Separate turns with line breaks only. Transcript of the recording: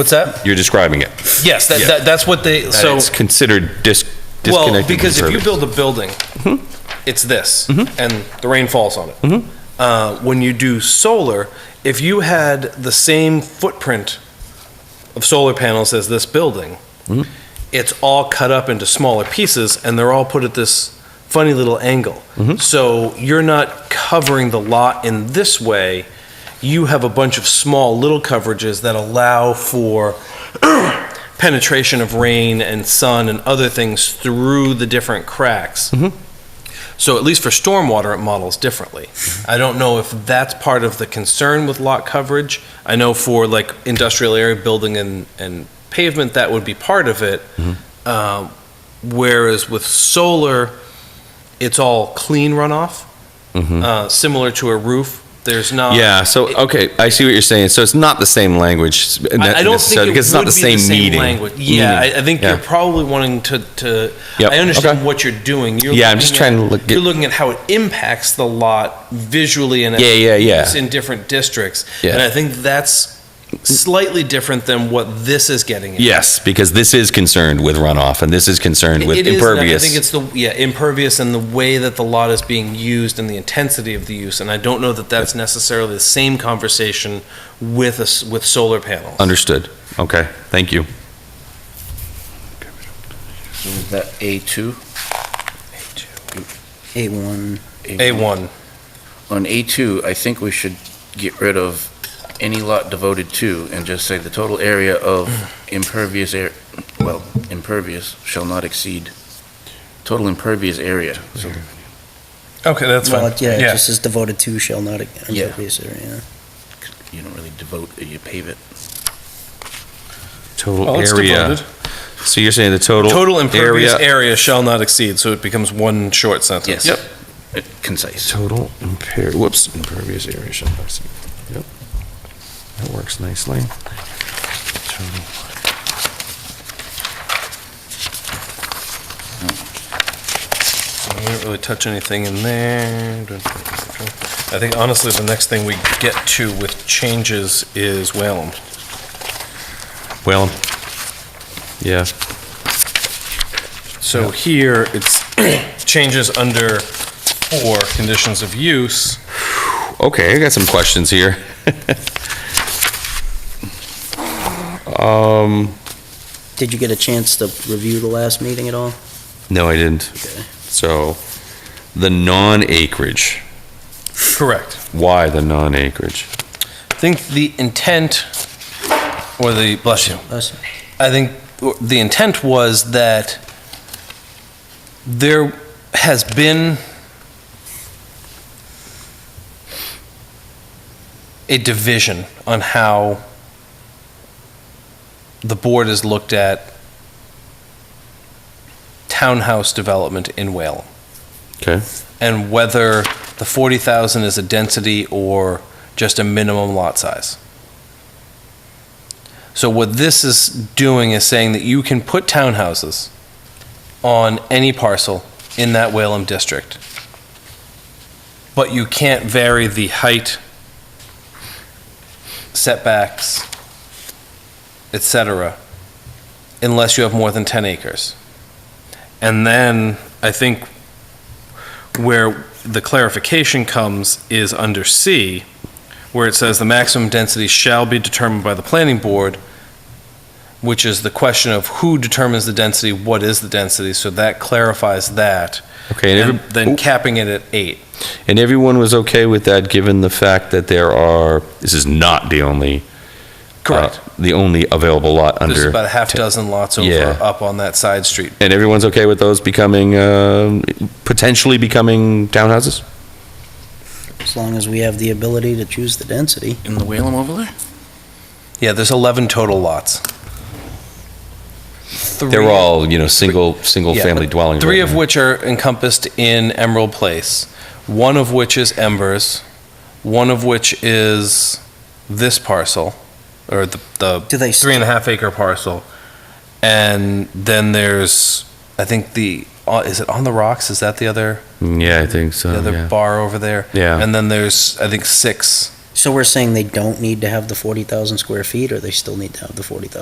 What's that?
You're describing it.
Yes, that,
Yeah.
that, that's what they,
So
so,
it's considered dis- disconnected.
well, because
from
if you
service.
build
Mm-hmm.
a building, it's this, and the rain falls on it. Uh, when you do solar, if you had the same footprint of solar panels as this building,
Mm-hmm.
it's all cut up into smaller pieces, and they're all put at this funny little angle.
Mm-hmm.
So you're not covering the lot in this way. You have a bunch of small little coverages that allow for penetration of rain and sun and other things through the different cracks. So at least for stormwater, it models differently. I don't know if that's part of the concern with lot coverage. I know for like industrial area building and, and pavement, that would be part of it. Um, Whereas with solar, it's all clean runoff, uh, similar to a roof. There's not.
Yeah, so, okay, I see what you're saying. So it's not the same language.
I- I don't think it
Because it's not
would
the
be
same meaning.
language. Yeah, I, I think
Yeah.
you're probably wanting to. to
Yep,
I understand
okay.
what you're doing. You're
Yeah, I'm
looking
just
at-
trying to look-
you're looking at how it impacts the lot visually and
Yeah, yeah, yeah.
it's in different districts,
Yeah.
and I think that's slightly different than what this is getting. At.
Yes, because this is concerned with runoff and this is concerned
It-
with
it is, and I-
impervious.
I think it's the yeah impervious and the way that the lot is being used and the intensity of the use, and I don't know that that's necessarily the same conversation with us with solar panels.
Understood. Okay, thank you.
So is that A2? A1.
A one.
On A2, I think we should get rid of any lot devoted to and just say the total area of impervious air, well, impervious shall not exceed, total impervious area. So
Okay, that's
Well, it- Yeah, it just says devoted to shall not impervious area.
you don't really devote, you pave it.
Total area. So you're saying the total.
Oh, Total impervious area shall not exceed, so it becomes one short sentence.
Yes. Uh, Concise.
Total imper, whoops, impervious area. should not exceed. Yep. That works nicely. Total-
We didn't really touch anything in there. I think honestly, the next thing we get to with changes is Whalen.
Well, yeah,
So here, it's changes under four, conditions of use.
okay, I got some questions here. Um,
Did you get a chance to review the last meeting at all?
no, I didn't.
Okay.
So, the non-acreage.
Correct.
Why the non-acreage?
I think the intent, or the, bless you,
Us?
I think the intent was that there has been a division on how the board has looked at townhouse development in Whalen
Okay,
and whether the 40,000 is a density or just a minimum lot size. So what this is doing is saying that you can put townhouses on any parcel in that Whalum district, but you can't vary the height, setbacks, et cetera, unless you have more than 10 acres. And then, I think where the clarification comes is under C, where it says the maximum density shall be determined by the planning board, which is the question of who determines the density, what is the density, so that clarifies that.
okay, and
And
every-
then capping it at eight.
And everyone was okay with that, given the fact that there are, this is not the only. uh, The only available lot
There's
under,
about a half dozen lots over,
Yeah.
up on that side street.
and everyone's okay with those becoming, um, potentially becoming townhouses?
As long as we have the ability to choose the density.
In the Whalum overlay?
Yeah, there's 11 total lots.
They're all, you know, single,
Yeah,
single-family
but
dwelling.
Three
right
of
now.
which are encompassed in Emerald Place, one of which is Embers, one of which is this parcel, or the, the
Do they,
three and a half acre parcel. And then there's, I think the, uh, is it On the Rocks? Is that the other,
Oh, Yeah, I think so,
the other
yeah.
bar over there?
Yeah.
And then there's, I think, six
So we're saying they don't need to have the 40,000 square feet, or they still need to have the 40,000?